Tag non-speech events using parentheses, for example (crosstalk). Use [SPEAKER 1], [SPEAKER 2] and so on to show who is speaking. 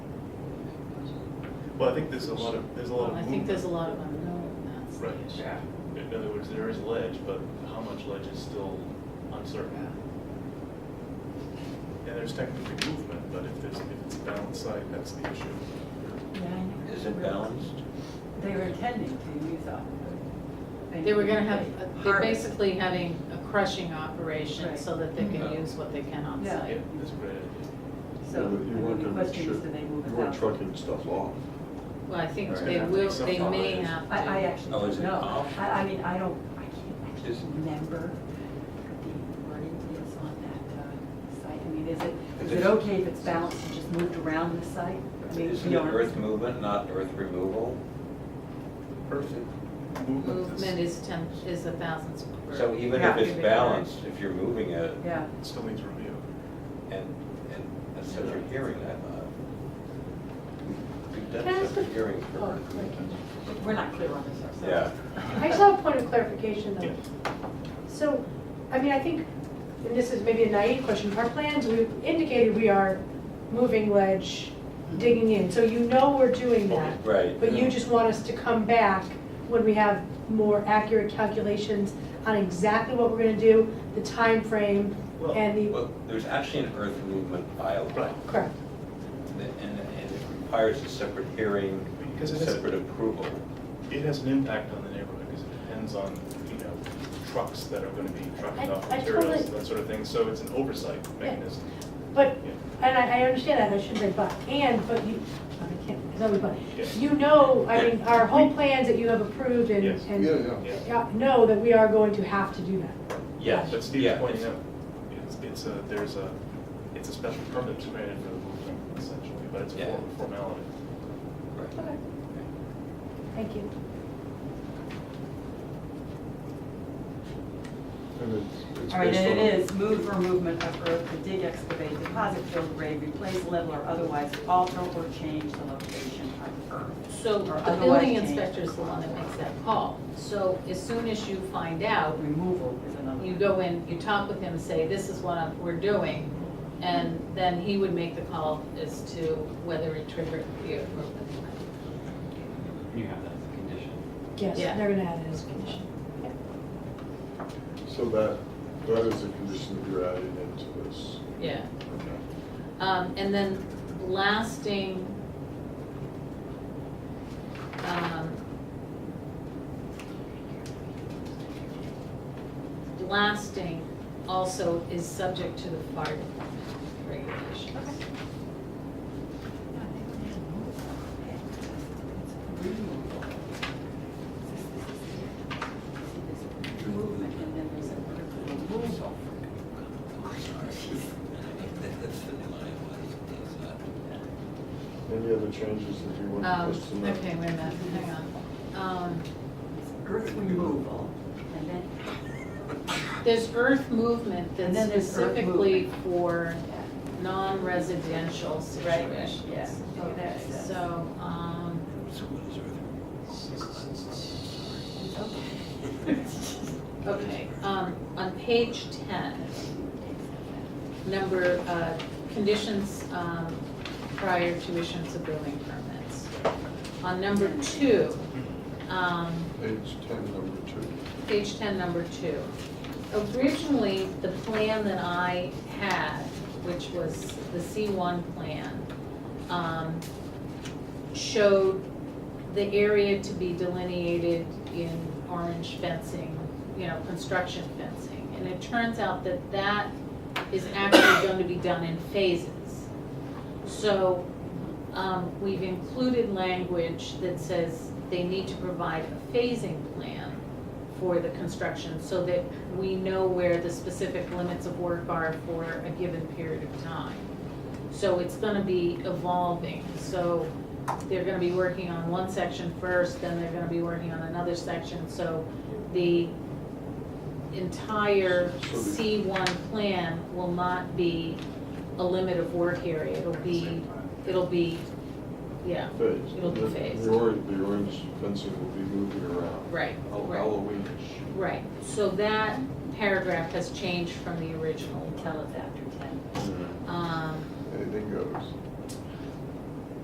[SPEAKER 1] Well, I think there's a lot of, there's a lot of
[SPEAKER 2] I think there's a
[SPEAKER 1] movement.
[SPEAKER 2] lot of unknown, that's the
[SPEAKER 1] Right.
[SPEAKER 2] issue.
[SPEAKER 3] Yeah,
[SPEAKER 1] In other words, there is ledge, but how much ledge is still uncertain. And there's technically movement, but if there's, if it's balanced site, that's the issue.
[SPEAKER 4] Is it balanced?
[SPEAKER 5] They were intending to, you thought. but
[SPEAKER 2] They were gonna have, they're
[SPEAKER 5] Harvest.
[SPEAKER 2] basically having a crushing operation
[SPEAKER 5] Right.
[SPEAKER 2] so that they can
[SPEAKER 4] Mhm.
[SPEAKER 1] Mm-hmm.
[SPEAKER 2] use what they can on
[SPEAKER 5] Yeah.
[SPEAKER 1] Yeah,
[SPEAKER 2] site.
[SPEAKER 1] that's a great idea.
[SPEAKER 5] So, I
[SPEAKER 6] You
[SPEAKER 5] mean,
[SPEAKER 6] weren't
[SPEAKER 5] the
[SPEAKER 6] gonna
[SPEAKER 5] question is,
[SPEAKER 6] ship-
[SPEAKER 5] do they move
[SPEAKER 6] You
[SPEAKER 5] it
[SPEAKER 6] weren't
[SPEAKER 5] out?
[SPEAKER 6] trucking stuff off.
[SPEAKER 2] Well, I think
[SPEAKER 4] Right.
[SPEAKER 2] they
[SPEAKER 4] Have
[SPEAKER 1] to
[SPEAKER 2] will,
[SPEAKER 1] make some
[SPEAKER 2] they may
[SPEAKER 1] compromise.
[SPEAKER 2] have to.
[SPEAKER 5] I, I actually
[SPEAKER 4] Oh, is
[SPEAKER 5] don't
[SPEAKER 4] it
[SPEAKER 5] know.
[SPEAKER 4] off?
[SPEAKER 5] I, I mean, I don't, I can't actually
[SPEAKER 4] Is-
[SPEAKER 5] remember what the wording is on that uh, site. I mean, is it,
[SPEAKER 4] Is
[SPEAKER 5] is it
[SPEAKER 4] it-
[SPEAKER 5] okay if it's balanced and just moved around the site? I mean,
[SPEAKER 4] Isn't
[SPEAKER 5] you
[SPEAKER 4] it
[SPEAKER 5] know,
[SPEAKER 4] earth movement, not earth removal?
[SPEAKER 1] Perfect. Movement
[SPEAKER 2] Movement
[SPEAKER 1] is,
[SPEAKER 2] is ten, is a thousand square.
[SPEAKER 4] So even
[SPEAKER 5] Yeah.
[SPEAKER 4] if it's balanced, if you're moving it,
[SPEAKER 5] Yeah,
[SPEAKER 1] still needs review.
[SPEAKER 4] and, and that's such a hearing, I thought. We've
[SPEAKER 2] Can I
[SPEAKER 4] done such a
[SPEAKER 2] ask a-
[SPEAKER 4] hearing for
[SPEAKER 5] oh,
[SPEAKER 4] earth movement.
[SPEAKER 5] we're not clear on this ourselves.
[SPEAKER 4] Yeah.
[SPEAKER 5] (laughs)
[SPEAKER 7] I just have a point of clarification
[SPEAKER 1] Yeah.
[SPEAKER 7] though. So, I mean, I think, and this is maybe a naive question, our plans, we've indicated we are moving ledge, digging in, so you know we're doing that.
[SPEAKER 4] Right.
[SPEAKER 7] But you just want us to come back when we have more accurate calculations on exactly what we're gonna do, the time frame,
[SPEAKER 1] Well-
[SPEAKER 7] and the,
[SPEAKER 4] Well, there's actually an earth movement bylaw.
[SPEAKER 1] Right.
[SPEAKER 7] correct.
[SPEAKER 4] And, and it requires a separate hearing,
[SPEAKER 1] Because it is-
[SPEAKER 4] separate approval.
[SPEAKER 1] It has an impact on the neighborhood because it depends on, you know, trucks that are gonna be trucking
[SPEAKER 7] I-
[SPEAKER 1] off
[SPEAKER 7] I
[SPEAKER 1] materials,
[SPEAKER 7] totally-
[SPEAKER 1] that sort of thing, so it's an oversight
[SPEAKER 7] Yeah.
[SPEAKER 1] mechanism.
[SPEAKER 7] But,
[SPEAKER 1] Yeah.
[SPEAKER 7] and I, I understand that, I shouldn't say but, and, but you, I can't, it's always but.
[SPEAKER 1] Yeah.
[SPEAKER 7] You know, I mean, our whole
[SPEAKER 1] We-
[SPEAKER 7] plans that you have approved and,
[SPEAKER 1] Yes.
[SPEAKER 7] and
[SPEAKER 1] Yeah.
[SPEAKER 7] Yeah, know that we are going to have to do that.
[SPEAKER 4] Yes,
[SPEAKER 1] But Steve's
[SPEAKER 4] yeah.
[SPEAKER 1] pointing out, it's, it's a, there's a, it's a special permit that's granted for the movement essentially, but it's a
[SPEAKER 4] Yeah.
[SPEAKER 1] form- formality.
[SPEAKER 4] Right.
[SPEAKER 7] Okay. Thank you.
[SPEAKER 6] And it's, it's
[SPEAKER 5] All right,
[SPEAKER 6] based
[SPEAKER 5] and
[SPEAKER 6] on-
[SPEAKER 5] it is move or movement of earth to dig, excavate, deposit, fill, grade, replace, level, or otherwise alter or change the location of earth.
[SPEAKER 2] So
[SPEAKER 5] Or
[SPEAKER 2] the
[SPEAKER 5] otherwise
[SPEAKER 2] building
[SPEAKER 5] change.
[SPEAKER 2] inspector is the one that makes that call. So as soon as you find out,
[SPEAKER 5] Removal is another.
[SPEAKER 2] you go in, you talk with him, say, this is what I'm- we're doing, and then he would make the call as to whether it triggered the approval.
[SPEAKER 8] You have that as a condition.
[SPEAKER 7] Yes,
[SPEAKER 2] Yeah.
[SPEAKER 7] they're gonna add it as a condition.
[SPEAKER 6] So that, that is a condition that you're adding into this.
[SPEAKER 2] Yeah.
[SPEAKER 6] Okay.
[SPEAKER 2] Um, and then lasting, um, lasting also is subject to the fire department regulations.
[SPEAKER 5] Movement, and then there's an article removal.
[SPEAKER 6] Any other changes that you want
[SPEAKER 2] Um,
[SPEAKER 6] us to make?
[SPEAKER 2] okay, wait a minute, hang on. Um,
[SPEAKER 5] It's Earth removal, and then.
[SPEAKER 2] There's earth movement
[SPEAKER 5] And
[SPEAKER 2] that's
[SPEAKER 5] then there's earth
[SPEAKER 2] specifically
[SPEAKER 5] movement.
[SPEAKER 2] for non-residential situations.
[SPEAKER 5] yeah. Oh,
[SPEAKER 2] Okay,
[SPEAKER 5] that's- that's-
[SPEAKER 2] so, um, okay, um, on page ten, number, uh, conditions, um, prior to issuance of building permits. On number two, um,
[SPEAKER 6] Page ten, number two.
[SPEAKER 2] page ten, number two. Originally, the plan that I had, which was the C one plan, um, showed the area to be delineated in orange fencing, you know, construction fencing. And it turns out that that is actually going to be done in phases. So, um, we've included language that says they need to provide a phasing plan for the construction so that we know where the specific limits of work are for a given period of time. So it's gonna be evolving, so they're gonna be working on one section first, then they're gonna be working on another section, so the entire
[SPEAKER 6] So the-
[SPEAKER 2] C one plan will not be a limit of work area, it'll be, it'll be, yeah,
[SPEAKER 6] Phase.
[SPEAKER 2] It'll be
[SPEAKER 6] The-
[SPEAKER 2] phased.
[SPEAKER 6] The orange, the orange fencing will be moving around.
[SPEAKER 2] right,
[SPEAKER 6] Hall-
[SPEAKER 2] right.
[SPEAKER 6] Halloweenish.
[SPEAKER 2] Right, so that paragraph has changed from the original. Um,
[SPEAKER 5] Tell us after ten.